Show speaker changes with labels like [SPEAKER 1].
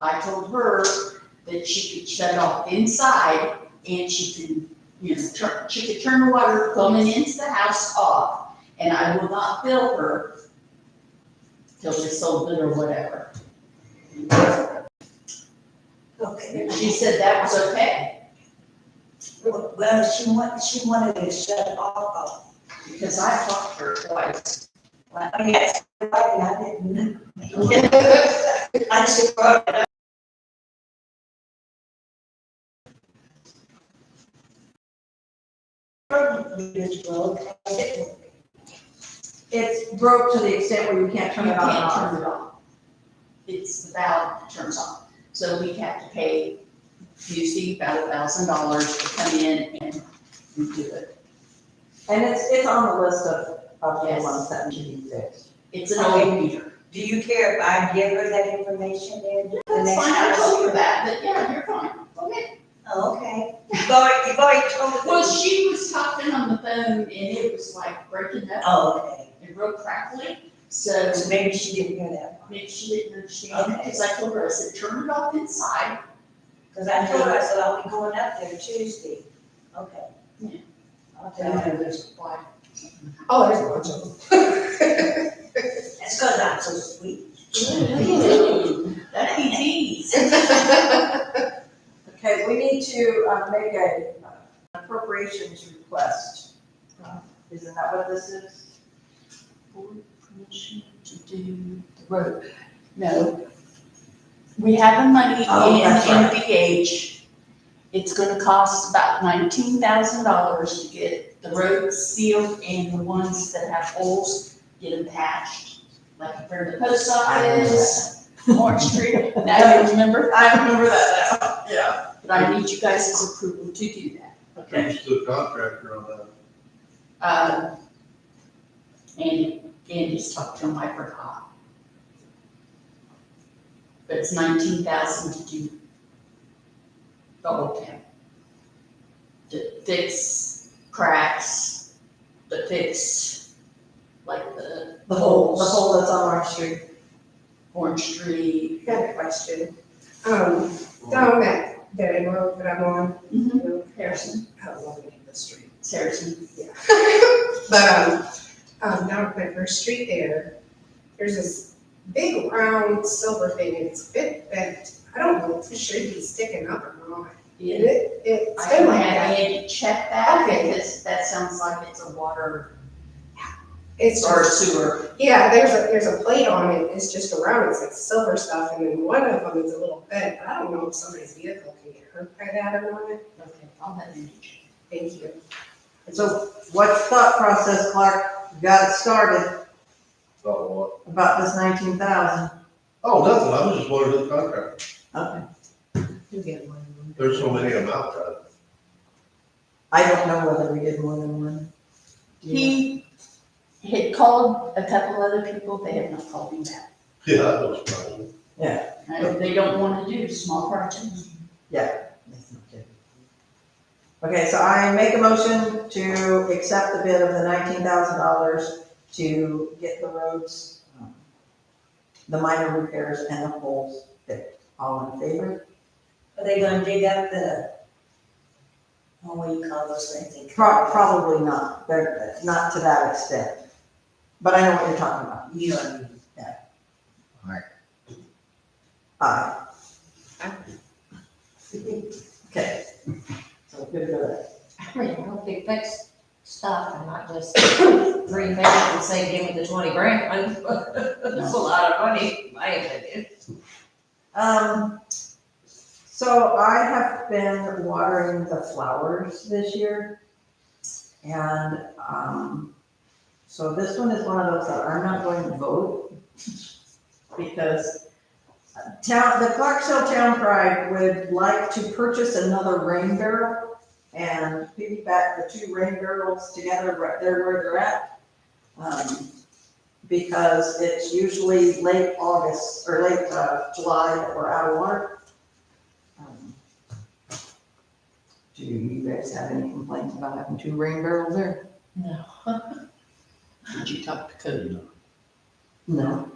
[SPEAKER 1] I told her that she could shut off inside and she can, you know, turn, she could turn the water coming into the house off. And I will not bill her till she sold it or whatever.
[SPEAKER 2] Okay,
[SPEAKER 1] And she said that was okay,
[SPEAKER 2] well, she wa, she wanted to shut it off,
[SPEAKER 1] because I talked to her twice.
[SPEAKER 2] but, oh, yes, right, I didn't, I just brought it up. It's broke.
[SPEAKER 3] It's broke to the extent where you can't
[SPEAKER 1] You
[SPEAKER 3] turn it on and
[SPEAKER 1] can't
[SPEAKER 3] off.
[SPEAKER 1] turn it off. It's the valve that turns on. So we have to pay Busey about a thousand dollars to come in and do it.
[SPEAKER 3] And it's, it's on the list of, of the
[SPEAKER 1] Yes.
[SPEAKER 3] ones that need to be fixed.
[SPEAKER 1] It's an old meter.
[SPEAKER 2] Do you care if I give her that information then? the
[SPEAKER 1] That's
[SPEAKER 2] next
[SPEAKER 1] fine, I
[SPEAKER 2] time?
[SPEAKER 1] told her that, but yeah, you're fine, okay.
[SPEAKER 2] Oh, Okay, you've already, you've already told her.
[SPEAKER 1] Well, she was talking on the phone and it was like breaking up,
[SPEAKER 2] Oh,
[SPEAKER 1] it broke crackly, so
[SPEAKER 2] okay, so maybe she didn't hear that,
[SPEAKER 1] maybe she didn't understand,
[SPEAKER 2] Okay.
[SPEAKER 1] because I told her, I said, turn it off inside.
[SPEAKER 2] because I told her, I said, I'll be going up there Tuesday, okay.
[SPEAKER 1] Yeah.
[SPEAKER 2] I'll tell her.
[SPEAKER 1] There's why.
[SPEAKER 4] Oh, there's a bunch of
[SPEAKER 2] That's because I'm so sweet.
[SPEAKER 1] That ain't easy.
[SPEAKER 3] Okay, we need to, um, make a uh, appropriations request. Um, Isn't that what this is?
[SPEAKER 1] board permission to do the road. No. We have the money
[SPEAKER 3] Oh,
[SPEAKER 1] in
[SPEAKER 3] that's right.
[SPEAKER 1] NVH. It's gonna cost about nineteen thousand dollars to get the roads sealed and the ones that have holes, get them patched. Like for the post office, Orange Street, now you remember,
[SPEAKER 3] I remember that now.
[SPEAKER 1] but I need you guys' approval to do that.
[SPEAKER 5] Who's the contractor on that?
[SPEAKER 1] Um, and Andy's talked to him, I forgot. But it's nineteen thousand to do the whole thing. To fix cracks, to fix like the
[SPEAKER 3] The hole, the hole that's on our street.
[SPEAKER 1] Orange Street.
[SPEAKER 4] good question. Um, down that very road that I'm on, Mm-hmm.
[SPEAKER 1] Harrison,
[SPEAKER 4] I don't want to name the street.
[SPEAKER 1] it's Harrison.
[SPEAKER 4] But, um, um, down my first street there, there's this big round silver thing and it's a bit bent. I don't know if it should be sticking up or not. And
[SPEAKER 1] Yeah,
[SPEAKER 4] it, it's
[SPEAKER 1] I
[SPEAKER 4] been
[SPEAKER 1] haven't
[SPEAKER 4] like
[SPEAKER 1] had
[SPEAKER 4] that.
[SPEAKER 1] Andy check that
[SPEAKER 4] Okay.
[SPEAKER 1] because that sounds like it's a water
[SPEAKER 4] It's
[SPEAKER 1] or
[SPEAKER 4] just,
[SPEAKER 1] sewer.
[SPEAKER 4] yeah, there's a, there's a plate on it. It's just around. It's like silver stuff. And then one of them is a little bent. I don't know if somebody's vehicle can get hurt by that or not.
[SPEAKER 1] Okay, I'll have Andy check.
[SPEAKER 4] Thank you.
[SPEAKER 6] So what thought process, Clark, got it started
[SPEAKER 5] About what?
[SPEAKER 6] about this nineteen thousand?
[SPEAKER 5] Oh, nothing, I was just wondering who the contractor,
[SPEAKER 6] Okay.
[SPEAKER 5] there's so many of them out there.
[SPEAKER 6] I don't know whether we did more than one. Do you
[SPEAKER 1] He had called a couple other people, they have not called him back.
[SPEAKER 5] Yeah, that was probably.
[SPEAKER 1] And they don't wanna do small projects.
[SPEAKER 6] know? That's not good. Okay, so I make a motion to accept the bid of the nineteen thousand dollars to get the roads, um, the minor repairs and the holes fixed. All in favor?
[SPEAKER 2] Are they gonna dig up the, oh, what do you call those things? They
[SPEAKER 6] Pro- Probably not, They're- not to that extent. But I know what you're talking about.
[SPEAKER 2] You know what I mean?
[SPEAKER 6] Aye. Okay. So good for that.
[SPEAKER 7] Wait, I hope they fix stuff and not just remake it and say, give me the twenty grand. That's a lot of money, in my opinion.
[SPEAKER 6] Um, so I have been watering the flowers this year. And, um, so this one is one of those that I'm not going to vote because town, the Clarksville Town Pride would like to purchase another rain barrel and piggyback the two rain barrels together right there where they're at. Um, because it's usually late August or late uh, July that we're out of water. Um, Do you guys have any complaints about having two rain barrels there?
[SPEAKER 1] Did you talk to Cody?
[SPEAKER 6] No.